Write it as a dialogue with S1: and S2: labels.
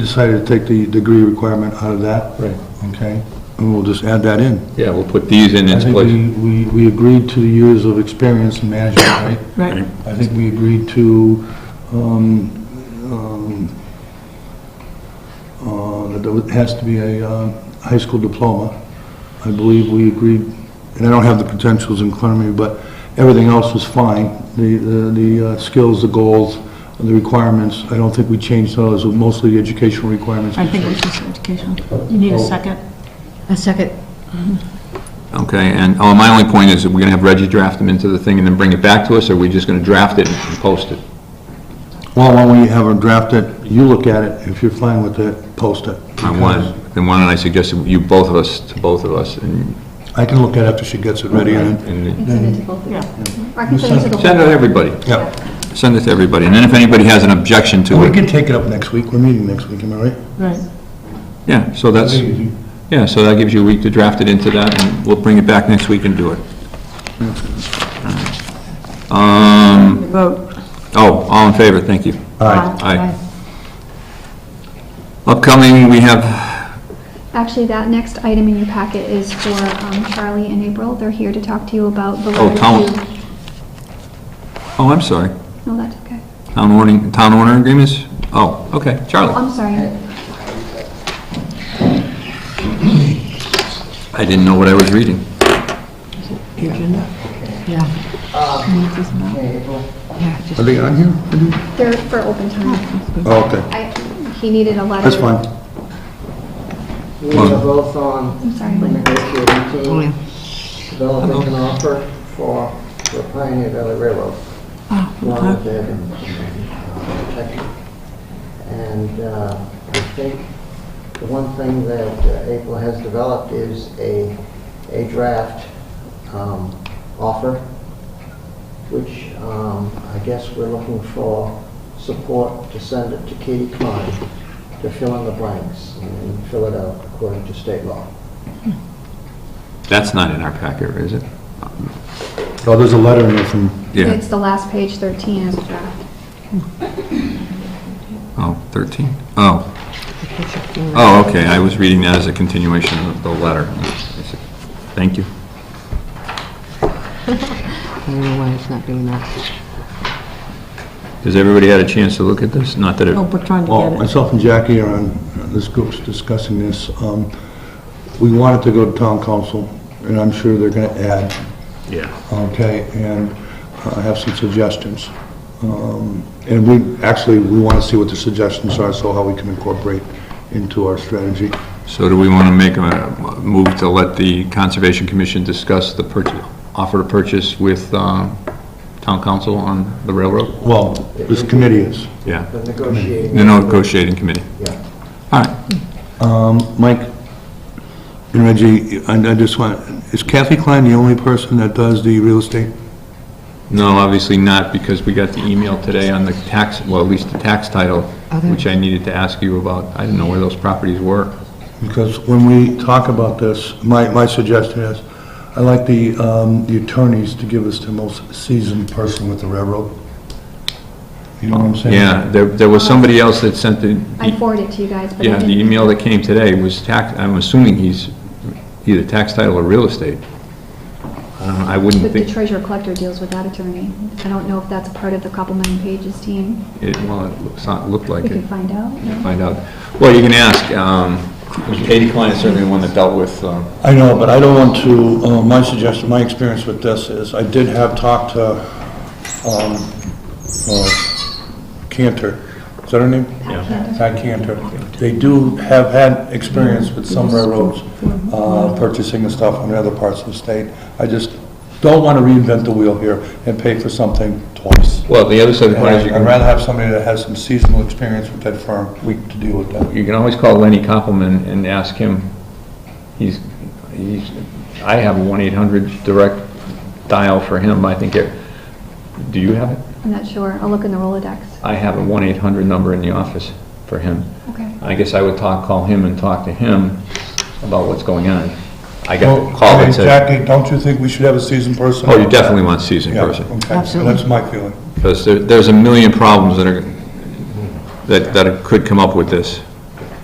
S1: decided to take the degree requirement out of that.
S2: Right.
S1: Okay, and we'll just add that in.
S2: Yeah, we'll put these in
S1: I
S2: its
S1: think
S2: place.
S1: we, we we agreed to years of experience in management, right?
S3: Right.
S1: I think we agreed to, um, um, uh, that there has to be a uh, high school diploma. I believe we agreed, and I don't have the potentials in front of me, but everything else was fine. The, the- the uh, skills, the goals, the requirements, I don't think we changed those, mostly the educational requirements.
S3: I think it's just educational. You need a
S1: Oh.
S3: second?
S4: A second.
S2: Okay, and, oh, my only point is, that we're gonna have Reggie draft them into the thing and then bring it back to us, or we are just gonna draft it and post it?
S1: Well, why don't you have them draft it, you look at it, if you're fine with it, post it.
S2: I want, then why don't I suggest that you, both of us, to both of us, and...
S1: I can look at it after she gets it ready, and then
S2: and-
S4: Send it to both of you.
S3: Yeah.
S4: Or I can send it to the whole.
S2: Send it to everybody.
S1: Yeah.
S2: Send it to everybody, and then if anybody has an objection to
S1: We
S2: it,
S1: can take it up next week, we're meeting next week, am I right?
S3: Right.
S2: yeah, so that's, yeah, so that gives you a week to draft it into that, and we'll bring it back next week and do it. Um,
S3: Vote.
S2: oh, all in favor, thank you.
S1: Hmm. Aye.
S2: Aye. Upcoming, we have
S5: Actually, that next item in your packet is for um, Charlie and April. They're here to talk to you about the
S2: Oh,
S5: letter
S2: town-
S5: to...
S2: Oh, I'm sorry.
S5: No, that's okay.
S2: Town warning, town owner agreements? Oh, okay, Charlie.
S5: I'm sorry.
S2: I didn't know what I was reading.
S4: Yeah. Yeah, just-
S1: Are they on here?
S5: They're for open time.
S1: Oh, okay,
S5: I, he needed a letter.
S1: that's fine.
S6: We are both on
S5: I'm sorry.
S6: the negotiating
S4: Oh, yeah.
S6: team, developing an offer for the Pioneer Valley Railroad.
S3: Ah,
S6: Along with their protection. And uh, I think the one thing that uh, April has developed is a, a draft um, offer, which um, I guess we're looking for support to send it to Katie Klein to fill in the blanks and fill it out according to state law.
S2: That's not in our packet, is it?
S1: Oh, there's a letter in there from,
S2: Yeah,
S5: It's the last page, 13 is the draft.
S2: oh, 13. Oh, oh, okay, I was reading that as a continuation of the letter. Thank you.
S4: I don't know why it's not doing that.
S2: Has everybody had a chance to look at this? Not that it,
S3: Oh, we're trying
S1: well,
S3: to get it.
S1: myself and Jackie are on, uh, this group's discussing this. Um, We wanted to go to town council, and I'm sure they're gonna add,
S2: yeah.
S1: okay, and I have some suggestions. Um, And we, actually, we wanna see what the suggestions are, so how we can incorporate into our strategy.
S2: So do we want to make a move to let the Conservation Commission discuss the purchase, offer to purchase with um, town council on the railroad?
S1: Well, this committee is.
S2: Yeah,
S6: The negotiating.
S2: the negotiating committee.
S6: Yeah.
S2: All right,
S1: Mike and Reggie, I I just want, is Kathy Klein the only person that does the real estate?
S2: no, obviously not, because we got the email today on the tax, well, at least the tax title,
S4: Okay.
S2: which I needed to ask you about. I didn't know where those properties were.
S1: Because when we talk about this, my, my suggestion is, I like the, um, the attorneys to give us the most seasoned person with the railroad. You know what I'm saying?
S2: Yeah, there, there was somebody else that sent the,
S5: I forwarded it to you guys, but I
S2: yeah, the
S5: didn't-
S2: email that came today was tax, I'm assuming he's either tax title or real estate. I don't know, I wouldn't
S5: But the
S2: think,
S5: treasurer collector deals with that attorney. I don't know if that's a part of the Koppelman Pages team.
S2: it, well, it looks, not- looked like
S5: We
S2: it.
S5: can find out. no?
S2: Find out. Well, you can ask, um, Katie Klein is certainly the one that dealt with, um,
S1: I know, but I don't want to, uh, my suggestion, my experience with this is, I did have talked to, um, uh, Cantor, is that her name? Yeah. Pat Cantor. They do have had experience with some railroads, uh, purchasing and stuff on other parts of the state. I just don't want to reinvent the wheel here and pay for something twice.
S2: well, the other side of the
S1: And
S2: coin is you
S1: I- I'd
S2: can,
S1: rather have somebody that has some seasonal experience with that firm to deal with that.
S2: you can always call Lenny Koppelman and ask him, he's, he's, I have a one eight hundred direct dial for him, I think, it- do you have it?
S5: I'm not sure. I'll look in the Rolodex.
S2: I have a one eight hundred number in the office for him.
S5: Okay.
S2: I guess I would talk, call him and talk to him about what's going on. I got
S1: Well,
S2: a call
S1: I mean,
S2: that said,
S1: Jackie, don't you think we should have a seasoned person?
S2: oh, you definitely want seasoned
S1: Yeah,
S2: person.
S1: okay,
S4: Absolutely.
S1: that's my feeling.
S2: Because there, there's a million problems that are, that, that could come up with this.